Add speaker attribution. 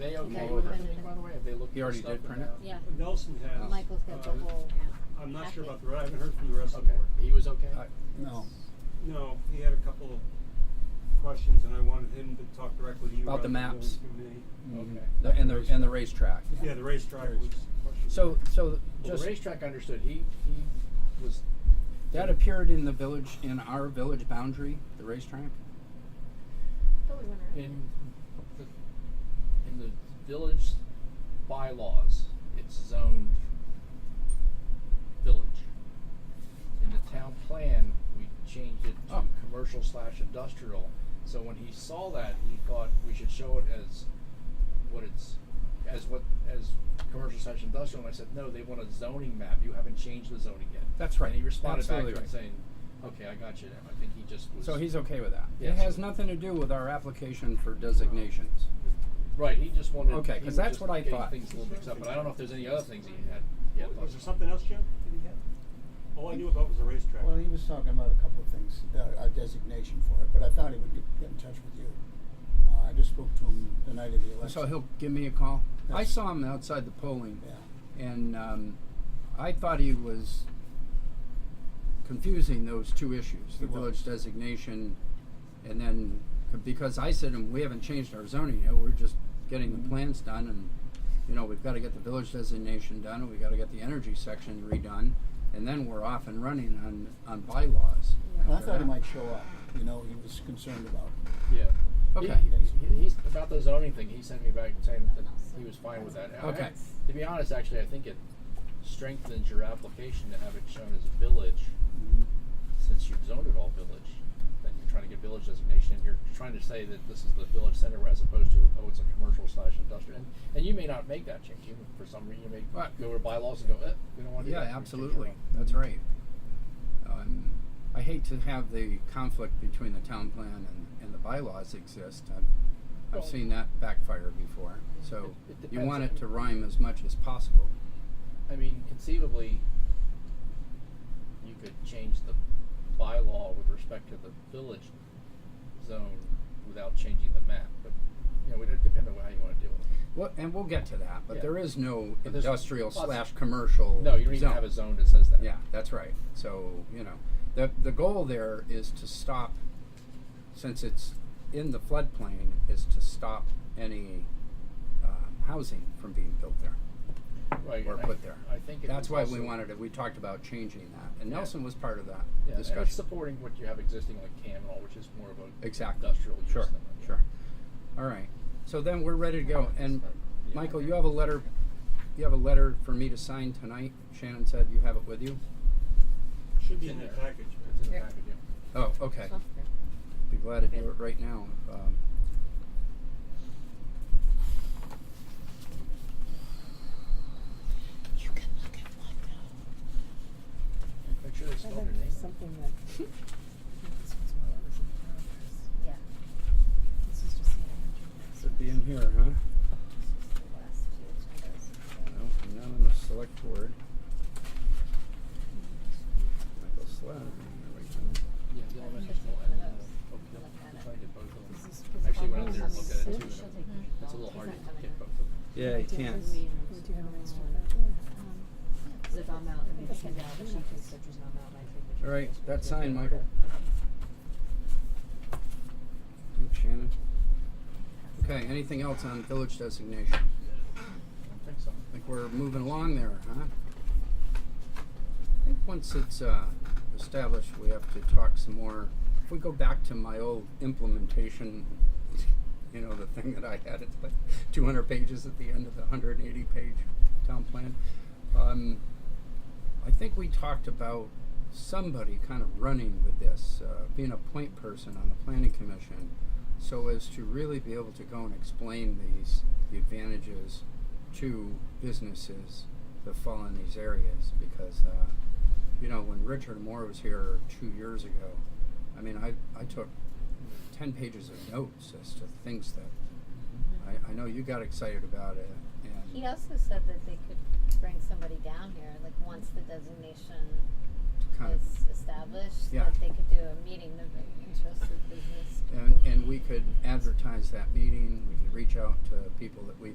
Speaker 1: they okay
Speaker 2: Okay.
Speaker 1: with printing, by the way? Have they looked?
Speaker 3: He
Speaker 1: at
Speaker 3: already
Speaker 1: stuff
Speaker 3: did print it?
Speaker 1: about-
Speaker 2: Yeah,
Speaker 4: Nelson has.
Speaker 2: Michael's got the
Speaker 4: Uh,
Speaker 2: whole.
Speaker 4: I'm not
Speaker 2: packet.
Speaker 4: sure about the, rest. I haven't heard from the rest of the
Speaker 1: Okay,
Speaker 4: board.
Speaker 1: he was okay?
Speaker 3: I- No,
Speaker 4: No, he had a couple of questions and I wanted him to talk directly to you.
Speaker 3: About the
Speaker 4: rather than
Speaker 3: maps.
Speaker 4: going through me.
Speaker 3: Mhm.
Speaker 1: Okay.
Speaker 3: The- and the, and the racetrack.
Speaker 4: Yeah, the racetrack was.
Speaker 3: So, so
Speaker 1: Well,
Speaker 3: just,
Speaker 1: the racetrack understood, he, he was,
Speaker 3: that appeared in the village, in our village boundary, the racetrack?
Speaker 5: Thought we went around.
Speaker 1: in the, in the village bylaws, it's zoned village. In the town plan, we changed it to
Speaker 3: Oh.
Speaker 1: commercial slash industrial, so when he saw that, he thought we should show it as what it's, as what, as commercial slash industrial, and I said, no, they want a zoning map, you haven't changed the zoning yet.
Speaker 3: That's right.
Speaker 1: And he responded back
Speaker 3: Absolutely
Speaker 1: to it
Speaker 3: right.
Speaker 1: saying, okay, I got you now, I think he just was.
Speaker 3: So he's okay with that? It
Speaker 1: Yes.
Speaker 3: has nothing to do with our application for designations?
Speaker 1: Right, he just wanted.
Speaker 3: Okay,
Speaker 1: he
Speaker 3: 'cause
Speaker 1: was
Speaker 3: that's
Speaker 1: just
Speaker 3: what I
Speaker 1: getting
Speaker 3: thought.
Speaker 1: Things a little mixed up, but I don't know if there's any other things he had. yet thought
Speaker 4: Was there
Speaker 1: about.
Speaker 4: something else, Jim? that he had? All I knew about was the racetrack.
Speaker 6: Well, he was talking about a couple of things, uh, a designation for it, but I thought he would get, get in touch with you. Uh, I just spoke to him the night of the election.
Speaker 3: So he'll give me a call? I
Speaker 6: Yes.
Speaker 3: saw him outside the polling.
Speaker 6: Yeah.
Speaker 3: And um, I thought he was confusing those two issues, the
Speaker 6: He was.
Speaker 3: village designation, and then, because I said, to him, we haven't changed our zoning yet, we're just getting the
Speaker 6: Mhm.
Speaker 3: plans done, and, you know, we've gotta get the village designation done, and we gotta get the energy section redone, and then we're off and running on, on bylaws.
Speaker 6: And I
Speaker 3: after
Speaker 6: thought he
Speaker 3: that.
Speaker 6: might show up, you know, he was concerned about.
Speaker 1: Yeah.
Speaker 3: Okay.
Speaker 1: He, he, he's about the zoning thing. He sent me back saying that he was fine with that. I-
Speaker 3: Okay.
Speaker 1: I- to be honest, actually, I think it strengthens your application to have it shown as village,
Speaker 4: Mm-hmm.
Speaker 1: since you've zoned it all village. Then you're trying to get village designation, and you're trying to say that this is the village center as opposed to oh, it's a commercial slash industrial. And, and you may not make that change. You, for some reason, you may
Speaker 3: Right.
Speaker 1: go to bylaws and go, eh, we don't want to.
Speaker 3: Oh, Yeah, absolutely, that's right. Um, I hate to have the conflict between the town plan and, and the bylaws exist. I've,
Speaker 1: Well-
Speaker 3: I've seen that backfire before, so
Speaker 1: It- it
Speaker 3: you want it
Speaker 1: depends.
Speaker 3: to rhyme as much as possible.
Speaker 1: I mean, conceivably, you could change the bylaw with respect to the village zone without changing the map, but, you know, it depends on how you wanna do it.
Speaker 3: Well, and we'll get to that, but
Speaker 1: Yeah.
Speaker 3: there is no
Speaker 1: But there's
Speaker 3: industrial
Speaker 1: lots-
Speaker 3: slash commercial
Speaker 1: No, you don't even
Speaker 3: zone.
Speaker 1: have a zone that says that.
Speaker 3: Yeah, that's right. So, you know, the, the goal there is to stop, since it's in the floodplain, is to stop any, um, housing from being built there.
Speaker 1: Right,
Speaker 3: or
Speaker 1: and I-
Speaker 3: put there.
Speaker 1: I think it
Speaker 3: That's
Speaker 1: was
Speaker 3: why we
Speaker 1: also-
Speaker 3: wanted it, we talked about changing that, and
Speaker 1: Yeah.
Speaker 3: Nelson was part of that
Speaker 1: Yeah, and it's
Speaker 3: discussion.
Speaker 1: supporting what you have existing like Cameron, which is more of a
Speaker 3: Exactly.
Speaker 1: industrial use
Speaker 3: Sure,
Speaker 1: than a-
Speaker 3: sure. All right, so then we're ready to go, and
Speaker 1: Yeah.
Speaker 3: Michael, you have a letter, you have a letter for me to sign tonight, Shannon said you have it with you?
Speaker 4: Should be
Speaker 1: It's
Speaker 4: in
Speaker 1: in
Speaker 4: that
Speaker 1: there.
Speaker 4: package.
Speaker 1: It's in the
Speaker 5: Yeah.
Speaker 1: package, yeah.
Speaker 3: Oh, okay,
Speaker 5: Software.
Speaker 3: be glad to do it right now, if, um.
Speaker 5: You can look at one
Speaker 1: Make sure they
Speaker 7: I
Speaker 1: spell your
Speaker 7: think
Speaker 1: name.
Speaker 7: something that. This was while I was in Congress.
Speaker 5: Yeah.
Speaker 7: This is just the energy. mix.
Speaker 3: Should be in here,
Speaker 5: This
Speaker 3: huh?
Speaker 5: is the last two agendas.
Speaker 3: No, not on the select board. Michael Slack, there we go.
Speaker 1: Yeah, the elementary school and the Oakdale. We tried to get both of them.
Speaker 7: This is because
Speaker 1: Actually
Speaker 7: Bob
Speaker 1: went out there and
Speaker 7: was
Speaker 1: looked at it
Speaker 7: sick.
Speaker 1: too.
Speaker 5: She'll
Speaker 1: and
Speaker 5: take
Speaker 1: it-
Speaker 5: it.
Speaker 1: It's a little
Speaker 5: She's
Speaker 1: hard
Speaker 5: not
Speaker 1: to
Speaker 5: coming
Speaker 1: get
Speaker 5: in.
Speaker 1: both of them.
Speaker 3: Yeah, you can't.
Speaker 7: We do have an extra.
Speaker 5: Cause if I'm out, then she's out, but she takes pictures and I'm out, and I take pictures.
Speaker 3: All right,
Speaker 5: Just
Speaker 3: that's
Speaker 5: put it in
Speaker 3: signed, Michael. Thanks, Shannon. Okay, anything else on village designation?
Speaker 1: I don't think so.
Speaker 3: Like we're moving along there, huh? I think once it's uh, established, we have to talk some more. If we go back to my old implementation, you know, the thing that I had, it's like 200 pages at the end of the 180 page town plan. Um, I think we talked about somebody kind of running with this, uh, being a point person on the planning commission, so as to really be able to go and explain these the advantages to businesses that fall in these areas. Because uh, you know, when Richard Moore was here two years ago, I mean, I I took ten pages of notes as to things that I, I know you got excited about it, and
Speaker 5: He also said that they could bring somebody down here, like once the designation
Speaker 3: to kind of
Speaker 5: is established,
Speaker 3: Yeah.
Speaker 5: that they could do a meeting of interested business.
Speaker 3: And, and we could advertise that meeting, we could reach out to people that we